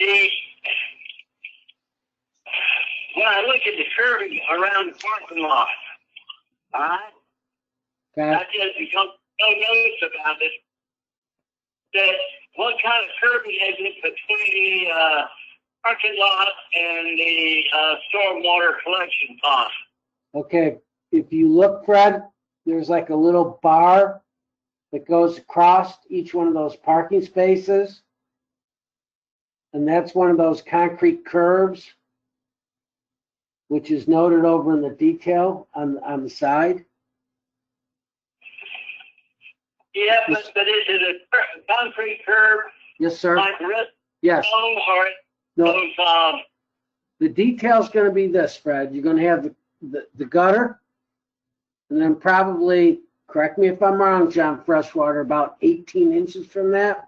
See, when I look at the curving around the parking lot, alright, I Okay. just become so nervous about it that what kind of curving is it between the uh, parking lot and the uh, stormwater collection pond? Okay. If you look, Fred, there's like a little bar that goes across each one of those parking spaces. And that's one of those concrete curves, which is noted over in the detail on, on the side. Yeah, but, but is it a cur- concrete curb Yes, sir. like redstone Yes. or No, those um, the detail's gonna be this, Fred. You're gonna have the, the, the gutter. And then probably, correct me if I'm wrong, John, freshwater, about eighteen inches from that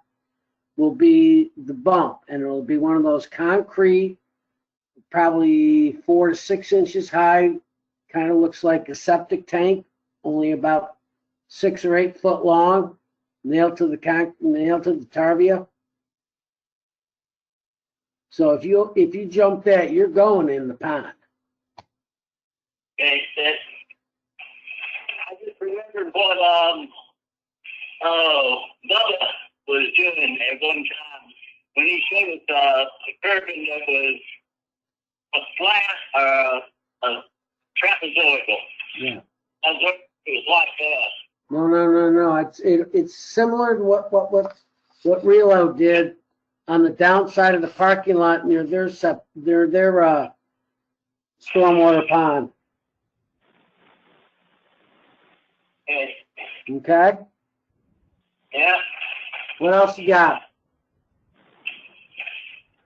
will be the bump. And it'll be one of those concrete, probably four to six inches high, kind of looks like a septic tank, only about six or eight foot long, nailed to the con, nailed to the tarvia. So if you, if you jump that, you're going in the pond. Okay, that I just remembered what um oh Bubba was doing at one time when he showed us uh, a curtain that was a flat uh, a trapezoidal. Yeah. I was wondering if it was like that. No, no, no, no. It's it, it's similar to what what what what Relo did on the downside of the parking lot near their sep their their uh stormwater pond. And, Okay. yeah. What else you got?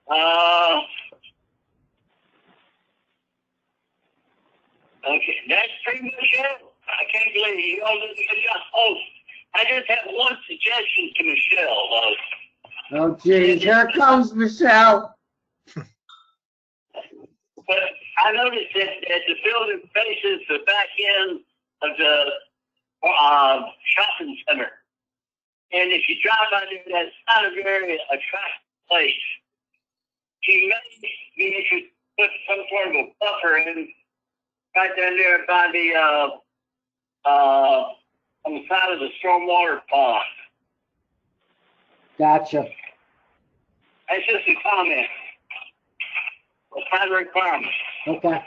Uh, okay, that's pretty much it. I can't believe you all did a good job. Oh, I just have one suggestion to Michelle, uh, though. Oh geez, here comes Michelle. But I noticed that, that the building faces the back end of the uh, shopping center. And if you drive by there, that's not a very attractive place. She may be interested to put some sort of a buffer in right down there by the, uh, uh, on the side of the stormwater pond. Gotcha. That's just a comment. A primary requirement. Okay.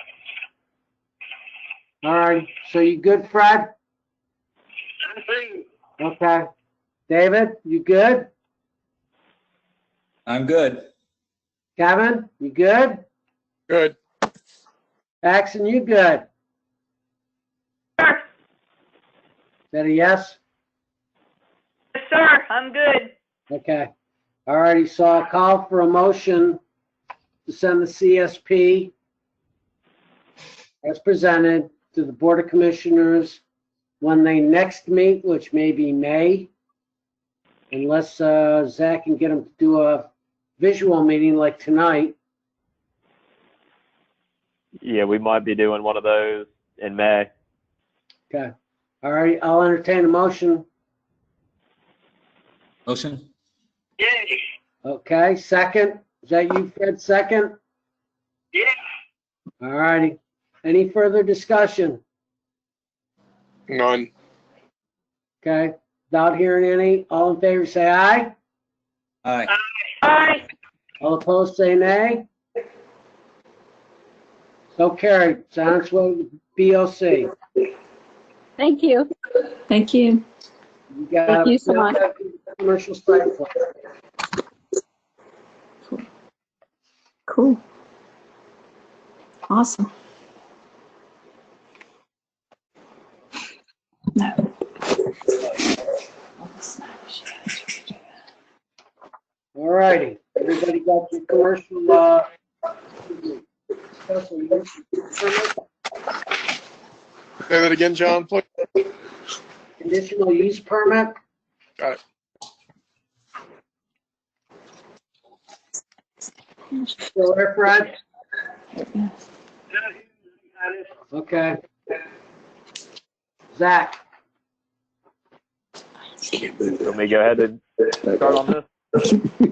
All right. So you good, Fred? I think Okay. David, you good? I'm good. Kevin, you good? Good. Paxton, you good? Is that a yes? Yes, sir, I'm good. Okay. All righty, so I'll call for a motion to send the CSP as presented to the Board of Commissioners when they next meet, which may be May, unless uh, Zach can get them to do a visual meeting like tonight. Yeah, we might be doing one of those in May. Okay. All right, I'll entertain a motion. Motion? Yay. Okay, second? Is that you, Fred, second? Yeah. All righty. Any further discussion? None. Okay, without hearing any, all in favor say aye. Aye. Aye. All opposed say nay. So carried. It's on its way to BOC. You Thank you. Thank you. got- Thank you so much. Commercial site plan. Cool. Awesome. No. All righty. Everybody got your commercial, uh, special use permit, Say that again, John, please. conditional use permit? Got it. Still there, Fred? Okay. Zach? Let me go ahead and start on this.